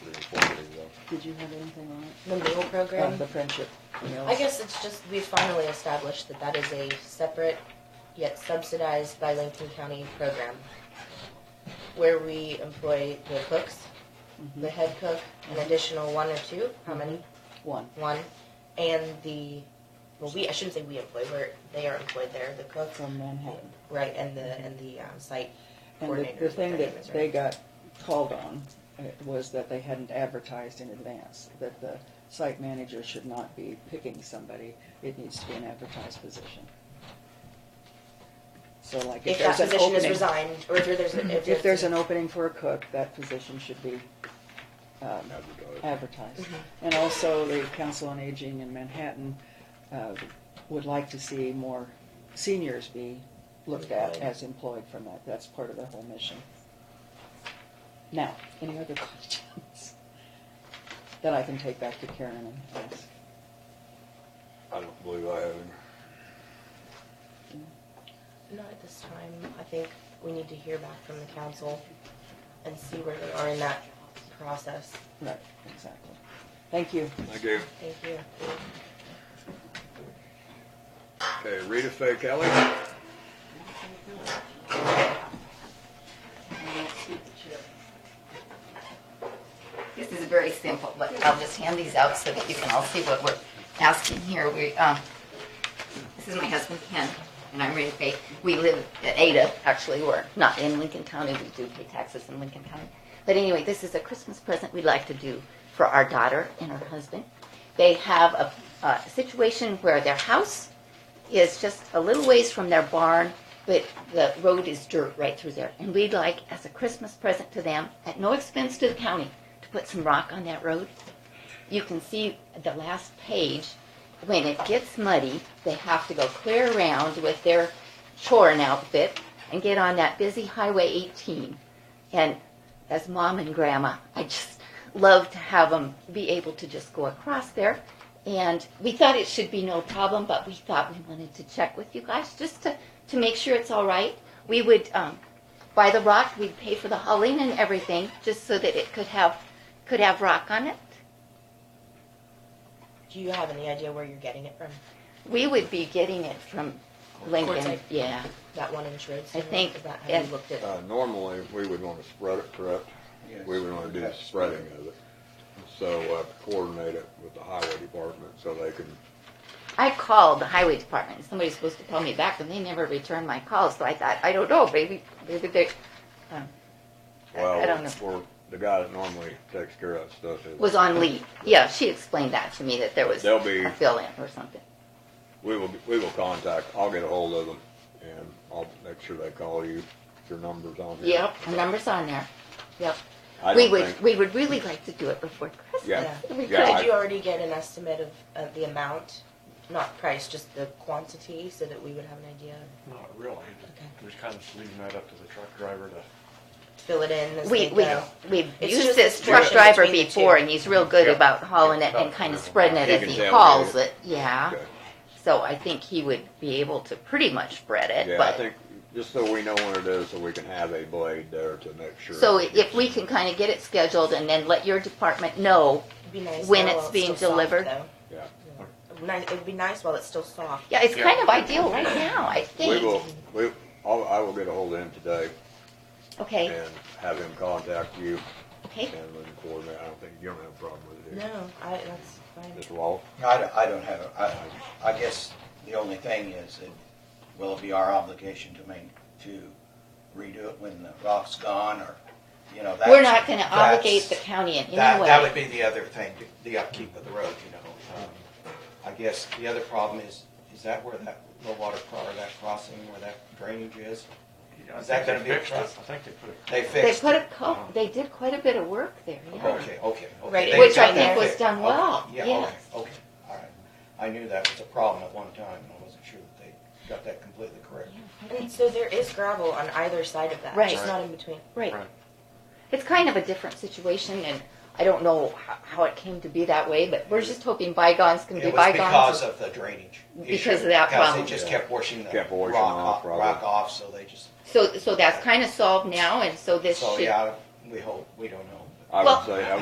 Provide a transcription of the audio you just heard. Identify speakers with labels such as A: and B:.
A: three or four days ago.
B: Did you have anything on it?
C: The meal
B: Um,
C: program?
B: the friendship meals.
C: I guess it's just, we finally established that that is a separate yet subsidized by Lincoln County program where we employ the cooks,
B: Mm-hmm.
C: the head cook, an additional one or two, how many?
B: One.
C: One, and the, well, we, I shouldn't say we employ, we're, they are employed there, the cooks,
B: From Manhattan.
C: right, and the, and the um, site
B: And the,
C: coordinator.
B: the thing
C: their name
B: that
C: is,
B: they
C: right?
B: got called on uh, was that they hadn't advertised in advance, that the site manager should not be picking somebody. It needs to be an advertised position. So like if
C: If that
B: there's an
C: position is
B: opening-
C: resigned, or if there's, a- if there's.
B: If there's
C: a-
B: an opening for a cook, that position should be um,
A: Now we got it.
B: advertised. And also, the Council on Aging in Manhattan uh, would like to see more seniors be looked at as employed from that. That's part of their whole mission. Now, any other questions that I can take back to Karen and ask?
A: I don't believe I have any.
C: Not at this time. I think we need to hear back from the council and see where they are in that process.
B: Right, exactly. Thank you.
A: Thank you.
C: Thank you.
A: Okay, Rita Fay Kelly.
D: This is very simple, but I'll just hand these out so that you can all see what we're asking here. We, um, this is my husband Ken, and I'm Rita Faye. We live at Ada, actually, we're not in Lincoln County, we do pay taxes in Lincoln County. But anyway, this is a Christmas present we'd like to do for our daughter and her husband. They have a, a situation where their house is just a little ways from their barn, but the road is dirt right through there. And we'd like, as a Christmas present to them, at no expense to the county, to put some rock on that road. You can see the last page, when it gets muddy, they have to go clear around with their chorin outfit and get on that busy Highway 18. And as mom and grandma, I just love to have them be able to just go across there. And we thought it should be no problem, but we thought we wanted to check with you guys just to, to make sure it's all right. We would um, buy the rock, we'd pay for the hauling and everything, just so that it could have could have rock on it.
C: Do you have any idea where you're getting it from?
D: We would be getting it from Lincoln.
C: Quartzite.
D: Yeah,
C: That one insured?
D: I think-
C: Is that how you
D: and-
C: looked at?
A: Uh, normally, we would want to spread it, correct? We would want to do the spreading of it. So uh, coordinate it with the highway department so they can,
D: I called the highway department. Somebody's supposed to call me back, and they never returned my call. So I thought, I don't know, maybe maybe they. Um, I- I don't
A: well,
D: know.
A: for the guy that normally takes care of that stuff. is-
D: was on leave. Yeah, she explained that to me that there was
A: They'll be-
D: a fill in or something.
A: We will, we will contact, I'll get a hold of them and I'll make sure they call you, if your number's on here.
D: Yep, her number's on there. Yep.
A: I
D: we
A: don't
D: would
A: think-
D: we would really like to do it before Christmas.
A: Yeah,
D: if we
A: yeah,
D: could.
A: I-
C: Did you already get an estimate of, of the amount? Not price, just the quantity, so that we would have an idea?
E: Not really.
C: Okay.
E: Just kind of leaving that up to the truck driver to,
C: Fill it in as
D: we
C: they
D: we
C: go?
D: we've
C: It's
D: used
C: just
D: this
C: the
D: truck
C: connection
D: driver
C: between the two.
D: before, and he's real good
A: Yeah.
D: about hauling it and
A: Yeah.
D: kind of spreading it
A: He
D: as
A: can
D: he
A: tell
D: hauls
A: you.
D: it. Yeah.
A: Okay.
D: So I think he would be able to pretty much spread it.
A: Yeah,
D: but
A: I think, just so we know when it is, so we can have a blade there to make sure.
D: so if we can kind of get it scheduled and then let your department know.
C: It'd be nice
D: When
C: while
D: it's being
C: still soft,
D: delivered?
C: though.
A: Yeah.
C: It'd be nice- It'd be nice while it's still soft.
D: Yeah, it's
E: Yeah.
D: kind of ideal right now. I
A: We
D: think.
A: will, we, I'll, I will get a hold of him today
D: Okay.
A: and have him contact you
D: Okay.
A: and we can coordinate. I don't think, you don't have a problem with it. do you?
C: No, I, that's fine.
A: Just Walt?
F: I don't, I don't have, I, I guess the only thing is, it will it be our obligation to make, to redo it when the rock's gone, or, you know, that's.
D: We're not going to obligate the
F: that's-
D: county in any
G: That,
D: way.
G: that would be the other thing, the upkeep of the road, you know. Um, I guess the other problem is, is that where that low water, cro- or that crossing where that drainage is?
E: I
G: Is that
E: think they
G: gonna be a
E: fixed it. I
G: truck?
E: think they put it.
G: They
D: They
G: fixed.
D: put a
G: it.
D: co- they did quite a bit of work there, yeah.
G: Okay, okay. okay.
C: Right,
G: They
C: which
G: got
C: I
G: that
C: think
D: was
G: fixed.
D: done
G: Okay,
D: well,
G: Yeah,
D: yes.
G: okay, okay, all right. I knew that was a problem at one time, and I wasn't sure that they got that completely correct.
C: And so there is gravel on either side of that,
D: Right.
C: just not in between.
D: Right.
E: Right.
D: It's kind of a different situation and I don't know how, how it came to be that way, but we're just hoping bygones can be
G: It was because
D: bygones.
G: of the drainage issue.
D: Because of that problem.
G: Because they just kept washing the
A: Kept
G: rock
A: washing off,
G: off,
A: probably.
G: rock off, so they just,
D: So, so that's kind of solved now and so this
G: so
D: should
G: yeah, we hope, we don't know.
A: I
D: Well-
A: would say, I